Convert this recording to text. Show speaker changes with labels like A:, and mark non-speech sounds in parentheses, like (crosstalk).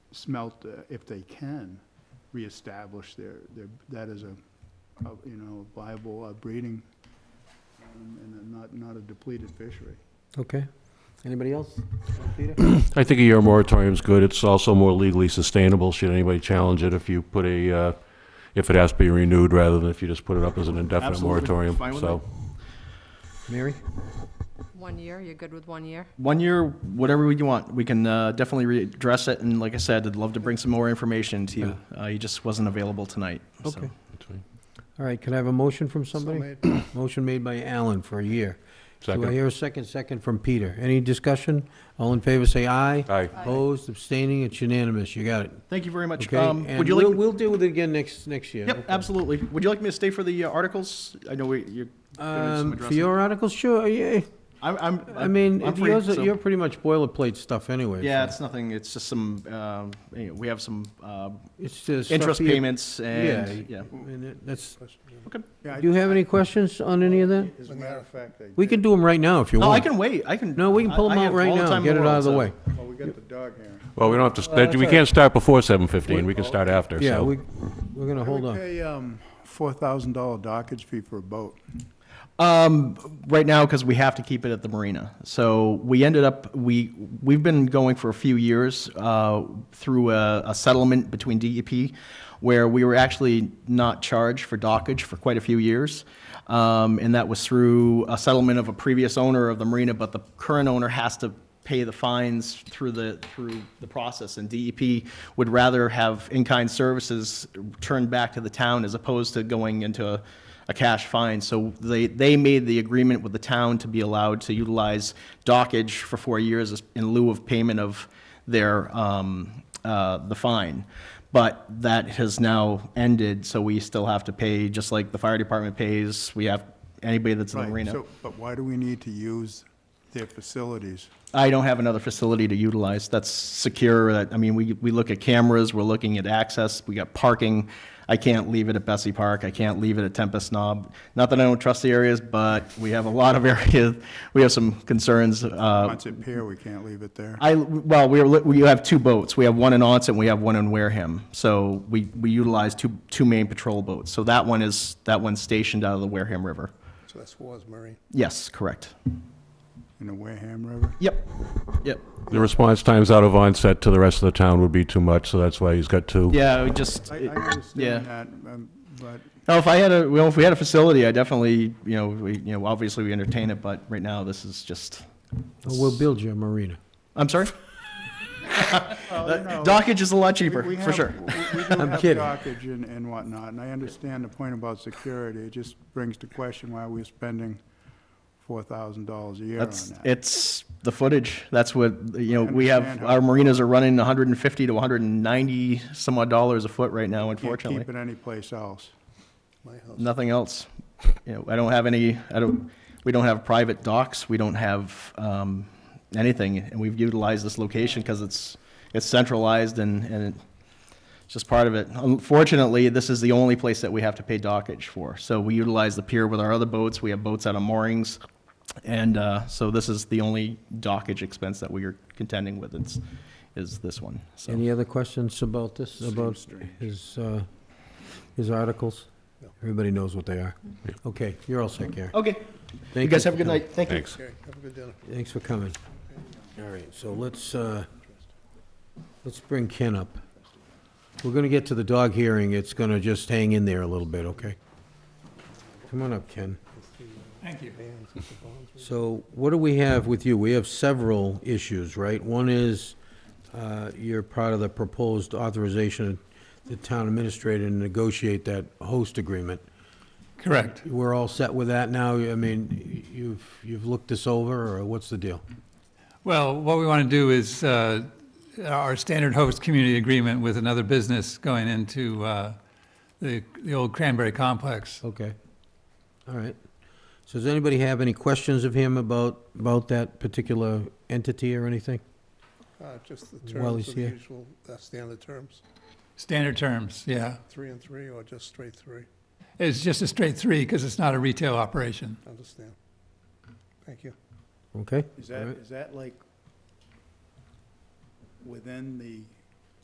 A: smelt, uh, if they can, reestablish their, their, that as a, a, you know, viable uh, breeding um, and a- not, not a depleted fishery.
B: Okay. Anybody else? Peter?
C: I think a year moratorium is good. It's also more legally sustainable, should anybody challenge it if you put a, uh, if it has to be renewed rather than if you just put it up as an indefinite
A: Absolutely.
C: moratorium,
A: Fine with
C: so.
B: Mary?
D: One year, you're good with one year?
E: One year, whatever you want, we can uh, definitely readdress it. And like I said, I'd love to bring some more information to you. Uh, he just wasn't available tonight. so.
B: Okay. All right, could I have a motion from somebody? Motion made by Alan for a year. Do I
C: Second.
B: hear a second? Second from Peter. Any discussion? All in favor, say aye.
C: Aye.
B: Opposed, abstaining, it's unanimous. You got it.
E: Thank you very much.
B: Okay,
E: Um,
B: and
E: would you like?
B: we'll, we'll deal with it again next, next year.
E: yep, absolutely. Would you like me to stay for the uh, articles? I know we. You're, gonna do some
B: Um, for
E: addressing.
B: your articles, sure, yeah.
E: I'm, I'm.
B: I mean,
E: I'm
B: if
E: free,
B: yours, are-
E: so-
B: you're pretty much boilerplate stuff anyway.
E: Yeah,
B: so
E: it's nothing. It's just some. Um, you know, we have some uh,
B: It's just. stuff
E: interest
B: you-
E: payments and
B: Yeah.
E: yeah.
B: I mean, that- That's,
A: Yeah, I-
B: do you have any questions on any of that?
A: As a matter of fact, I
B: We
A: did.
B: can do them right now if you
E: No,
B: want.
E: Oh, I can wait. I can.
B: No, we can
E: I-
B: pull them
E: I
B: out
E: have
B: right
E: all the
B: now,
E: time in
B: get it out of the
E: world,
B: way.
E: so-
A: Well, Oh, we got the dog here.
C: Well, we don't have to,
B: Well,
C: that- we
B: that's
C: can't start before seven fifteen, we can start after, so.
B: Yeah, we, we're gonna hold
A: We
B: on.
A: pay, um, four thousand dollar dockage fee for a boat.
E: Um, right now, because we have to keep it at the marina. So we ended up we we've been going for a few years uh, through a, a settlement between DEP, where we were actually not charged for dockage for quite a few years, um, and that was through a settlement of a previous owner of the marina, but the current owner has to pay the fines through the, through the process, and DEP would rather have in-kind services turned back to the town as opposed to going into a, a cash fine. So they, they made the agreement with the town to be allowed to utilize dockage for four years as- in lieu of payment of their, um, uh, the fine. But that has now ended, so we still have to pay, just like the fire department pays, we have, anybody that's in the
A: Right,
E: arena.
A: so- But why do we need to use their facilities?
E: I don't have another facility to utilize that's secure. That, I mean, we, we look at cameras, we're looking at access, we got parking. I can't leave it at Bessie Park, I can't leave it at Tempest Knob. Not that I don't trust the areas, but we have a lot of (laughs) areas, we have some concerns. uh,
A: Once it pier, we can't leave it there.
E: I, well, we, are we have two boats. We have one in Onset, we have one in Wareham. So we, we utilize two, two main patrol boats. So that one is, that one's stationed out of the Wareham River.
F: So that's Wars Marine.
E: Yes, correct.
A: In the Wareham River?
E: Yep, yep.
C: The response times out of onset to the rest of the town would be too much, so that's why he's got two.
E: Yeah, we just.
A: I, I
E: it- yeah.
A: understand that, um, but
E: No, if I had a, well, if we had a facility, I definitely, you know, we, you know, obviously we entertain it, but right now this is just,
B: Well, We'll build you a marina.
E: I'm sorry?
A: know,
E: Dockage is a lot
A: Oh, we- we
E: cheaper, for
A: have-
E: sure.
A: we-
E: (laughs)
A: We do
B: I'm
A: have
B: kidding.
A: dockage and, and whatnot, and I understand the point about security. It just brings to question why we're spending four thousand dollars a year on
E: That's,
A: that.
E: it's the footage. That's what, you know, we have,
A: understand
E: our
A: how-
E: marinas are running hundred and fifty to hundred and ninety some odd dollars a foot right now,
A: Can't
E: unfortunately.
A: keep it anyplace else.
F: My house.
E: Nothing else. You know, I don't have any, I don't, we don't have private docks. We don't have, um, anything. And we've utilized this location because it's, it's centralized and, and it, It's just part of it. Unfortunately, this is the only place that we have to pay dockage for. So we utilize the pier with our other boats. We have boats out on moorings. And uh, so this is the only dockage expense that we are contending with is, is this one. So,
B: Any other questions about this, about his, uh, his articles?
F: No.
B: Everybody knows what they are. Okay, you're all set, Gary.
E: okay. Oh, You
B: Thank
E: guys
B: for
E: have a good
B: coming.
E: night. Thank you.
C: Thanks.
F: Okay, have a good dinner.
B: Thanks for coming. All right, so let's, uh, let's bring Ken up. We're gonna get to the dog hearing. It's gonna just hang in there a little bit, okay? Come on up, Ken.
F: Vans with the bonds.
B: So what do we have with you? We have several issues, right? One is, uh, you're part of the proposed authorization of the town administrator to negotiate that host agreement.
G: Correct.
B: We're all set with that now? I mean, you've, you've looked this over, or what's the deal?
G: Well, what we want to do is uh, our standard host community agreement with another business going into uh, the the old Cranberry Complex.
B: Okay. All right. So does anybody have any questions of him about, about that particular entity or anything?
F: Uh, Just the
B: While he's
F: terms, of the
B: here.
F: usual, uh, standard terms,
G: Standard terms, yeah.
F: three and three or just straight three,
G: It's just a straight three because it's not a retail operation.
F: understand. Thank you.
B: Okay?
A: Is that,
B: Alright.
A: is that like within the